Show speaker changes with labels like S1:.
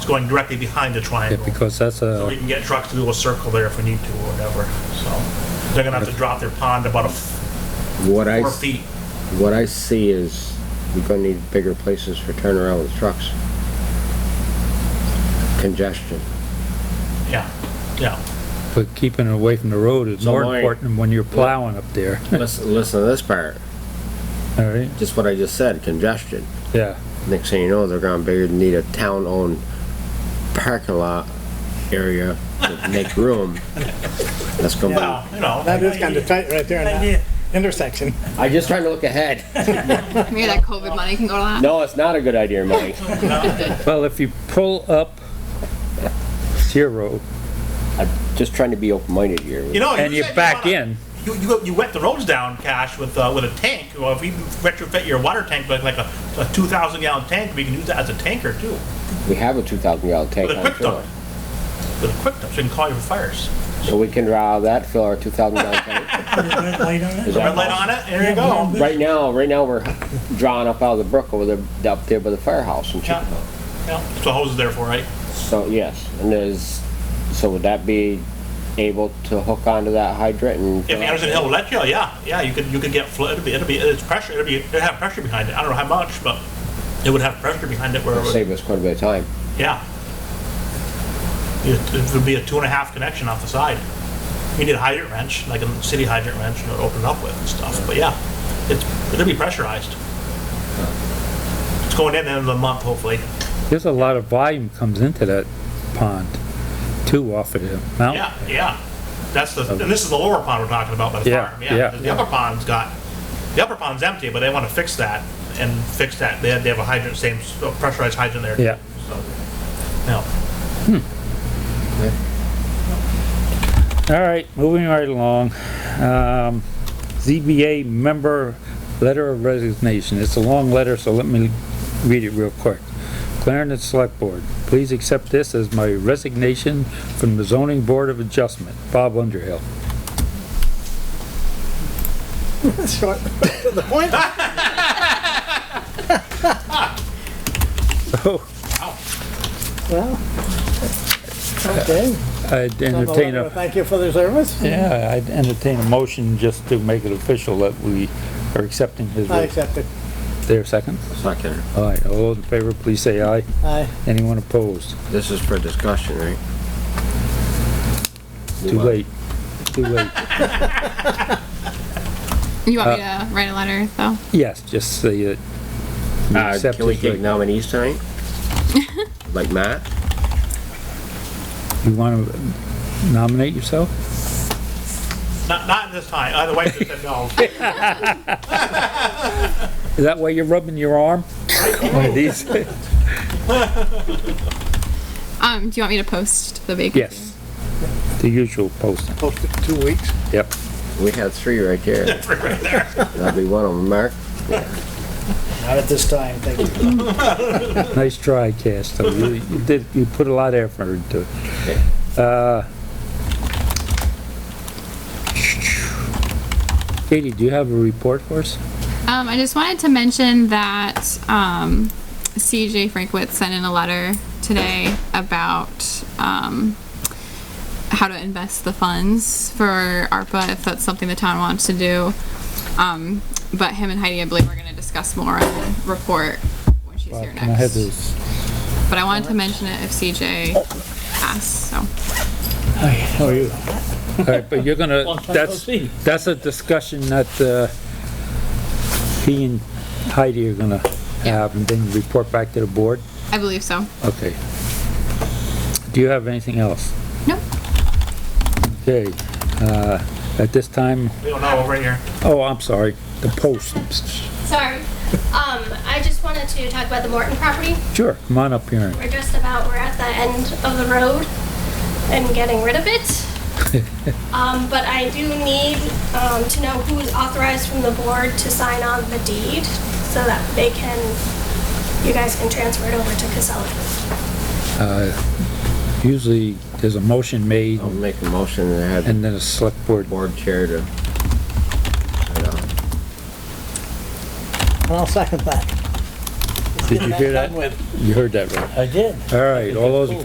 S1: going directly behind the
S2: Yeah,
S1: triangle.
S2: because that's uh,
S1: So we
S2: a,
S1: can get trucks to do a circle there if we need to or whatever, so. They're gonna have to drop their pond about a f-
S3: What I,
S1: four
S3: s-
S1: feet.
S3: what I see is we're gonna need bigger places for turnaround with trucks. Congestion.
S1: Yeah, yeah.
S2: but keeping it away from the road is
S3: So
S2: more
S3: my-
S2: important than when you're plowing up there,
S3: Listen, listen to this part,
S2: all right?
S3: just what I just said, congestion.
S2: Yeah,
S3: Next thing you know, they're gonna bigger, need a town-owned parking lot area to make room. That's gonna
S1: Well, you know.
S4: That is kind of tight right there in that intersection.
S3: be, I'm just trying to look ahead.
S5: Maybe that COVID money can go to that.
S3: No, it's not a good idea, Mike.
S2: well, if you pull up to your road
S3: I'm just trying to be open-minded here.
S1: Oh, You know,
S2: and you
S1: said
S2: back
S1: wanna-
S2: in,
S1: You, you, you wet the roads down, Cash, with, uh, with a tank, or if you retrofit your water tank like, like a, a two thousand gallon tank, we can use that as a tanker too,
S3: We have a two thousand gallon tank
S1: with a
S3: on
S1: quick
S3: shore.
S1: dump. With a quick dump, so you can call you for fires.
S3: So we can draw that, fill our two thousand gallon tank.
S4: Red light on it.
S3: Is that
S1: Red light
S3: possible?
S1: on it, and there you go.
S3: Right now, right now, we're drawing up out of the brook over there, up there by the firehouse in
S1: Yeah.
S3: Chicopee.
S1: Yeah, so hose is there for, right?
S3: So, yes, and there's, so would that be able to hook onto that hydrant and?
S1: If Anderson Hill will let you, yeah, yeah, you could, you could get flood, it'd be, it'd be, it's pressure, it'd be, it'd have pressure behind it, I don't know how much, but it would have pressure behind it where, it would-
S3: Save us quite a bit of time.
S1: yeah. It it would be a two and a half connection off the side. You need a hydrant wrench, like a city hydrant wrench, to open it up with and stuff, but yeah, it's, it'll be pressurized. It's going in the end of the month, hopefully.
S2: there's a lot of volume comes into that pond, too, off of the mountain.
S1: Yeah, yeah. That's the, and this is the lower pond we're talking about by the
S2: Yeah,
S1: farm,
S2: yeah.
S1: yeah. The upper pond's got, the upper pond's empty, but they want to fix that and fix that. They have, they have a hydrant, same s- pressurized hydrant there.
S2: Yeah.
S1: So, No,
S2: All right, moving right along. Um, ZBA member letter of resignation. It's a long letter, so let me read it real quick. Clarendon Select Board, please accept this as my resignation from the Zoning Board of Adjustment. Bob Underhill.
S4: Short. To the point.
S2: So
S4: Well, okay.
S2: I'd
S4: Well,
S2: entertain
S4: well,
S2: a,
S4: Thank you for the service.
S2: yeah, I'd entertain a motion just to make it official that we are accepting his,
S4: I
S2: res-
S4: accept it.
S2: there, second?
S3: Second,
S2: All right, all those in favor, please say aye.
S4: Aye.
S2: Anyone opposed?
S3: this is for discussion, right?
S2: Too late, too late.
S5: You want me
S2: Uh,
S5: to write a letter, though?
S2: Yes, just say it. We
S3: Uh,
S2: accept
S3: can we
S2: his
S3: take
S2: reg-
S3: nominees tonight? Like Matt?
S2: You want to nominate yourself?
S1: not, not this time. Uh, the wife just said no.
S2: Is that why you're rubbing your arm? One of these?
S5: Um, do you want me to post the vacancy?
S2: Yes. The usual posting.
S4: Posted two weeks.
S2: Yep.
S3: We had three right there.
S1: Right, right there.
S3: That'd be one of them, Mark.
S4: Not at this time, thank you.
S2: Nice try, Cass, though. You, you did, you put a lot of effort into it. Uh, Katie, do you have a report for us?
S5: Um, I just wanted to mention that um, CJ Frankwitz sent in a letter today about um, how to invest the funds for ARPA if that's something the town wants to do. Um, but him and Heidi, I believe, are going to discuss more in the report when she's here
S2: Can I have
S5: next.
S2: this?
S5: But I wanted to mention it if CJ asked. So
S2: How are you? All right, but you're gonna, that's,
S4: see.
S2: that's a discussion that, uh, he and Heidi are gonna have and then report back to the board?
S5: I believe so.
S2: Okay. Do you have anything else?
S5: Nope.
S2: Okay, uh, at this time,
S1: We don't know over here.
S2: oh, I'm sorry, the post.
S6: Sorry. Um, I just wanted to talk about the Morton property.
S2: Sure, come on up here.
S6: We're just about, we're at the end of the road and getting rid of it. Um, but I do need, um, to know who is authorized from the board to sign on the deed so that they can, you guys can transfer it over to Casella.
S2: Usually, there's a motion made
S3: I'll make a motion and have the
S2: and then a select board.
S3: board chair to. uh,
S4: And I'll second that.
S2: Did you hear that?
S4: with.
S2: You heard that right.
S4: I did.
S2: All right, all those in